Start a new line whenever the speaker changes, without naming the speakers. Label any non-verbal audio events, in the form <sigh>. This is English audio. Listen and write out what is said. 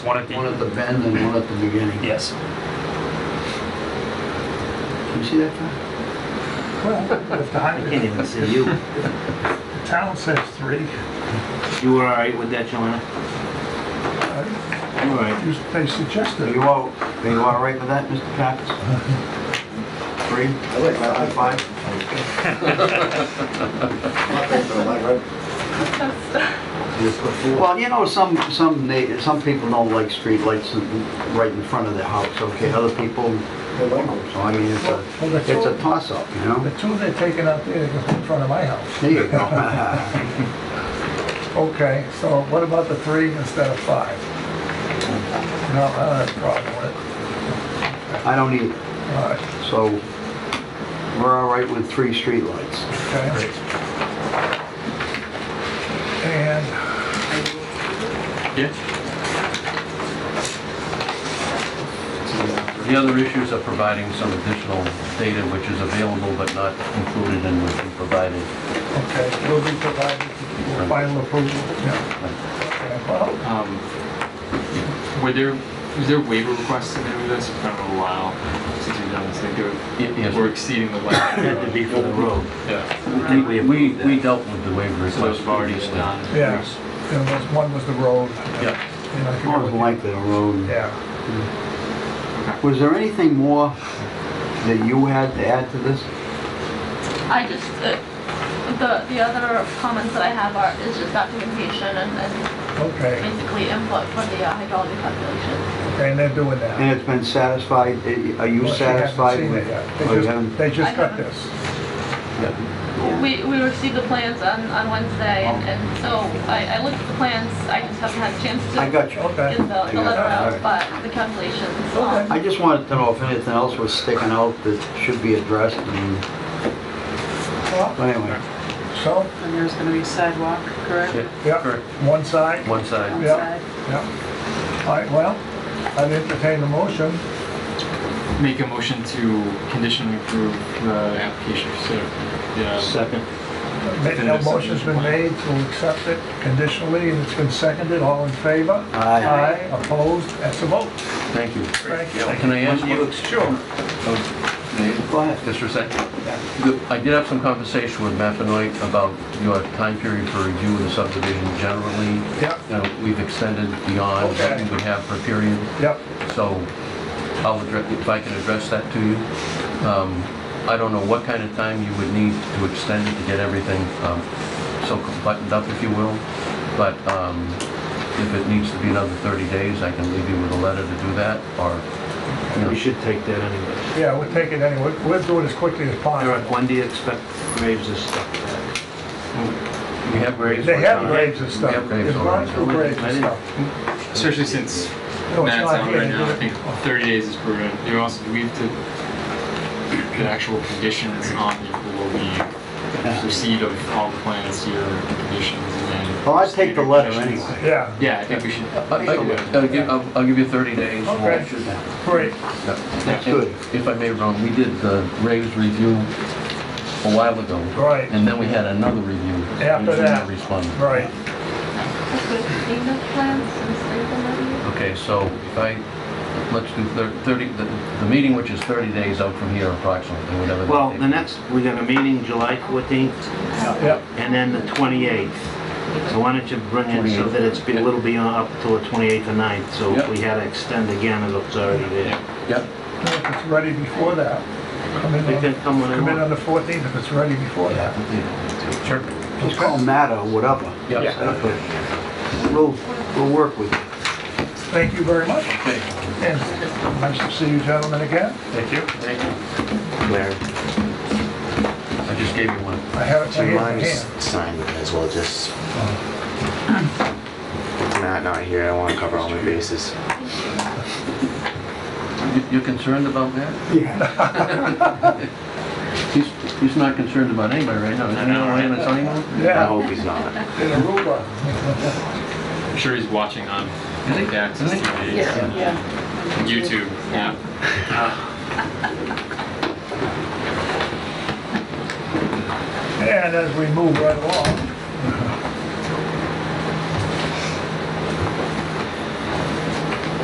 One at the,
One at the bend and one at the beginning.
yes.
Can you see that, Tom?
Well, if the
I
high,
can't even see you.
the town says three,
You were all right with that, Joanna?
uh,
You were all right.
you- they suggested.
you all, are you all right with that, Mr. Cox? Three? I like Five? Well, you know, some, some, na- some people don't like streetlights in- right in front of their house, okay? Other people, they like them. so I mean, it's a,
Well, that's
it's a
all-
toss-up, you know?
The two they're taking out there, they go in front of my house.
There you go. <laughs>
Okay, so what about the three instead of five? No, I don't have a problem with
I don't either.
it. All right,
So we're all right with three streetlights.
okay. And
Yeah. The other issues are providing some additional data which is available but not included in what you provided.
Okay, will be provided for final approval, yeah. Well,
Um, Were there, was there waiver requests in any of this, kind of allow, since we've done this, I think
Ye-
they
yes.
were, were exceeding the <coughs>
Had to
limit?
be for the road.
Yeah,
I think we
We,
approved
we
that.
dealt with the waiver
so those
request
have already been
previously.
done.
yeah, there was, one was the road.
Yeah,
and I forget
More
what-
than likely a road.
Yeah,
Was there anything more that you had to add to this?
I just, uh, the, the other comments that I have are, is just documentation and, and
okay,
basically input for the uh, hydraulic calculation.
okay, and they're doing that.
And it's been satisfied, are you
Well, she hasn't
satisfied
seen
with?
it yet.
Oh, you
They
haven't?
just, they just
I
got
haven't.
this.
We, we received the plans on, on Wednesday and, and so I, I looked at the plans, I just haven't had a chance to
I got you.
Okay.
get the,
I
the
got
letter
it,
out,
alright.
but the calculations,
Okay.
um,
I just wanted to know if anything else was sticking out that should be addressed and,
Well,
but anyway.
So,
And there's going to be sidewalk, correct?
yeah,
yeah,
correct.
one side,
One side.
yeah,
Outside.
yeah. All right, well, I'd entertain the motion.
Make a motion to conditionally approve the application, so, yeah,
Second.
Ma- No motion's been made to accept it conditionally, and it's been seconded, all in favor?
Aye.
Aye, opposed, that's a vote.
Thank you.
Thank you.
Can I ask you?
Sure.
Oh,
Go ahead.
Just for a second. I did have some conversation with Maffinoy about your time period for review of the subdivision generally.
Yeah.
You know, We've extended beyond what we would have per period.
Yep,
So I'll address, if I can address that to you. Um, I don't know what kind of time you would need to extend it to get everything um, so buttoned up, if you will, but um, if it needs to be another 30 days, I can leave you with a letter to do that, or, you
We
know,
should take that anyway.
yeah, we'll take it anyway, we'll do it as quickly as
Eric,
possible.
when do you expect Graves to stop that?
we have Graves.
They have
working on it.
graves and stuff.
We have Graves
It's gone
already.
through graves and stuff.
especially since
No, Oh, it's
Matt's
not
out
here.
right now, I think thirty days is prudent. You also, do we have to, the actual conditions on the approval, the receipt of all the plans here, the conditions, and then.
Well, I'd take the letter
Conditions.
anyway.
Yeah,
Yeah, I think we should.
I- I- I'll give- I'll- I'll give you 30 days. We'll-
Okay. great.
Yeah.
That's
And
good.
If I may, Ron, we did the Graves review a while ago.
Right.
And then we had another review.
After
which you
that.
responded.
Right,
with payment plans and stuff like that.
Okay, so if I, let's do thir- 30, the the meeting which is 30 days out from here approximately, whatever. that
Well,
date
the
is.
next, we got a meeting July 14th
yeah,
and then the 28th. So why don't you bring it so that it's be a little beyond up till the 28th or 9th? So if
Yep.
we had to extend again, it looks already there.
Yep,
if it's ready before that, come in
They
on,
can come when they
come in on
want.
the 14th if it's ready before that.
sure,
Just call Matt or whatever.
yeah.
We'll, we'll work with you.
Thank you very much,
Okay,
and nice to see you gentlemen again.
thank you. Thank you.
Mayor,
I just gave you one.
I have it
do you
in my
mind
hand. <laughs>
just signing it as well, just? <clears throat> It's Matt not here, I wanna cover all my bases.
You- You're concerned about that? Yeah. He's, he's not concerned about anybody right now. Isn't he on Lance anymore?
I
Yeah,
hope he's not.
in Aruba.
I'm sure he's watching on the access
Isn't
TV,
Yeah, yeah.
YouTube, yeah.
And as we move right along,